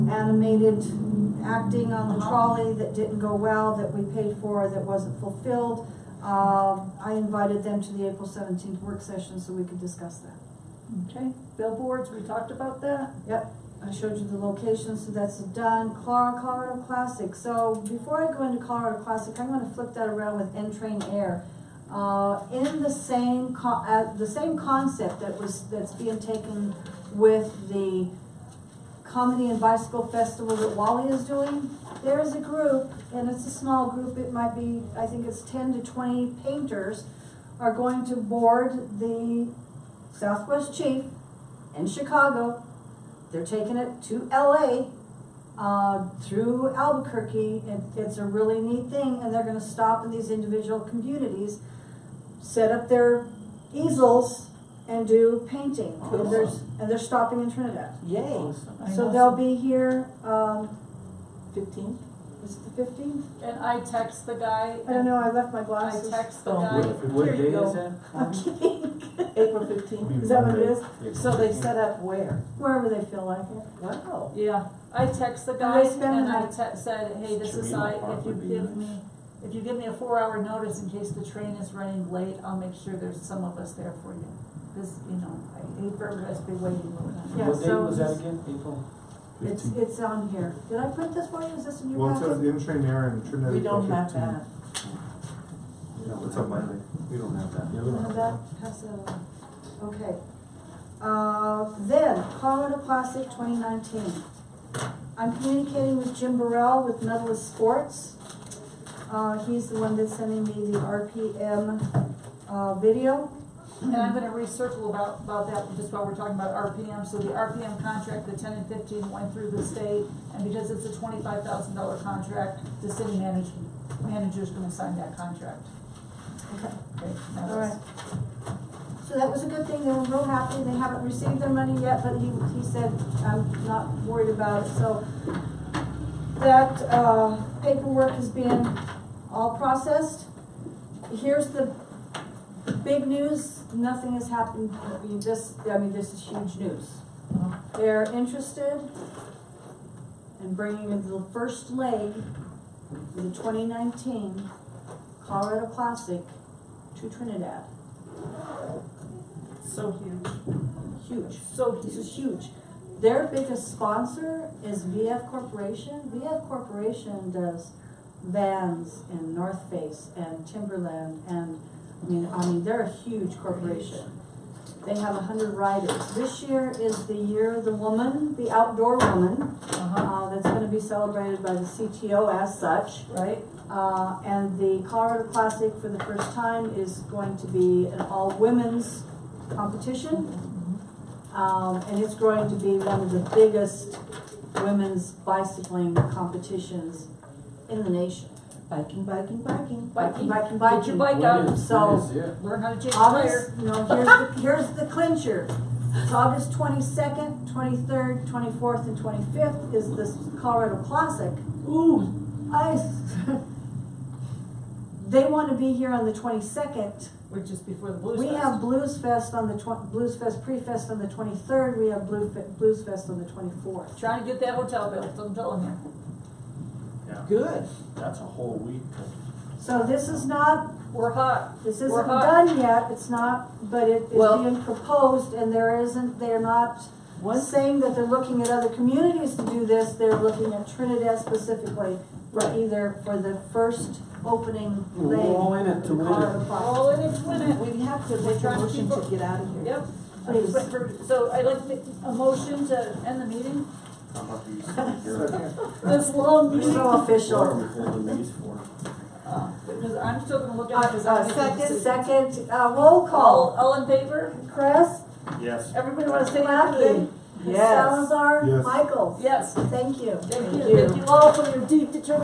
animated acting on the Uh-huh. trolley that didn't go well, that we paid for, that wasn't fulfilled. Um, I invited them to the April seventeenth work session so we could discuss that. Okay, billboards, we talked about that. Yep, I showed you the location, so that's done. Clara- Colorado Classic, so before I go into Colorado Classic, I'm gonna flip that around with N-Train Air. Uh, in the same co- uh, the same concept that was, that's being taken with the Comedy and Bicycle Festival that Wally is doing, there is a group, and it's a small group, it might be, I think it's ten to twenty painters, are going to board the Southwest Chief in Chicago. They're taking it to LA, uh, through Albuquerque, and it's a really neat thing, and they're gonna stop in these individual communities, set up their easels and do painting, and there's, and they're stopping in Trinidad. Yay, So they'll be here, um, fifteenth? is it the fifteenth? And I text the guy. I don't know, I left my I glasses. text the Oh, guy. what- what "Here you day go." is that? I'm kidding. April fifteenth. Is that what it is? So they set up where? Wherever they feel like it. Wow. Yeah, I text the And guy they spend and the I night. te- said, hey, this is, Serena I, Park if you would be give nice. me, if you give me a four hour notice in case the train is running late, I'll make sure there's some of us there for you. Cause, you know, I hate for everybody to be waiting all the time. Yeah, What day so was that it's- again, April? It's, Fifteen. it's on here. Did I print this for you? Is this in your Well, it says packet? in train air and Trinidad. We April don't have 15. that. No, it's on Monday. We don't have that. The other None one. of that? Pass that along. Okay. Uh, then, Colorado Classic twenty nineteen. I'm communicating with Jim Burrell with Medalist Sports. Uh, he's the one that's sending me the RPM, uh, video. And I'm gonna recircle about, about that, just while we're talking about RPM, so the RPM contract, the ten and fifteen went through the state, and because it's a twenty-five thousand dollar contract, the city manager, manager's gonna sign that contract. Okay. Okay, that was- Alright. So that was a good thing, they were real happy, they haven't received their money yet, but he, he said, I'm not worried about it, so. That, uh, paperwork has been all processed. Here's the big news, nothing has happened, I mean, this, I mean, this is huge news. They're interested in bringing in the first leg of the twenty nineteen Colorado Classic to Trinidad. So huge, Huge, so this is huge. Their biggest sponsor is VF Corporation. VF Corporation does Vans and North Face and Timberland and, I mean, I mean, they're a huge corporation. They have a hundred riders. This year is the year of the woman, the outdoor woman, uh-huh, uh, that's gonna be celebrated by the CTO as such. right? Uh, and the Colorado Classic for the first time is going to be an all-women's competition. Um, and it's going to be one of the biggest women's bicycling competitions in the nation. Biking, biking, biking. Biking, Biking, get your biking. bike When out, is- um, so- when is it? learn how to change August, tire. no, here's the, here's the clincher. It's August twenty-second, twenty-third, twenty-fourth, and twenty-fifth is this Colorado Classic. Ooh, I, they wanna be here on the twenty-second which is before the Blues We Fest. have Blues Fest on the twen- Blues Fest pre-fest on the twenty-third, we have Blue Fe- Blues Fest on the twenty-fourth. Trying to get that hotel built, I'm telling you. Yeah, Good. that's a whole week. of- So this is not, We're hot, this isn't We're hot. done yet, it's not, but it is Well- being proposed, and there isn't, they're not Once, saying that they're looking at other communities to do this, they're looking at Trinidad specifically, Right. either for the first opening We're leg. all in it to win it. Colorado Classic. all in it, win it. we have to make a motion to get out of here. Yep. Please. But for- So I'd like to, a motion to end the meeting, I'm not used to hearing. this long You're meeting. so What are official. we holding these for? Uh, Because I'm still gonna look at it, because Uh, I'm. second, second, uh, roll All, call, all in favor? Chris, Yes. Everybody wanna say Mackey, anything? Yes. Salazar, Yes. Michael. Yes, Thank you. thank you, thank you all for your deep determination.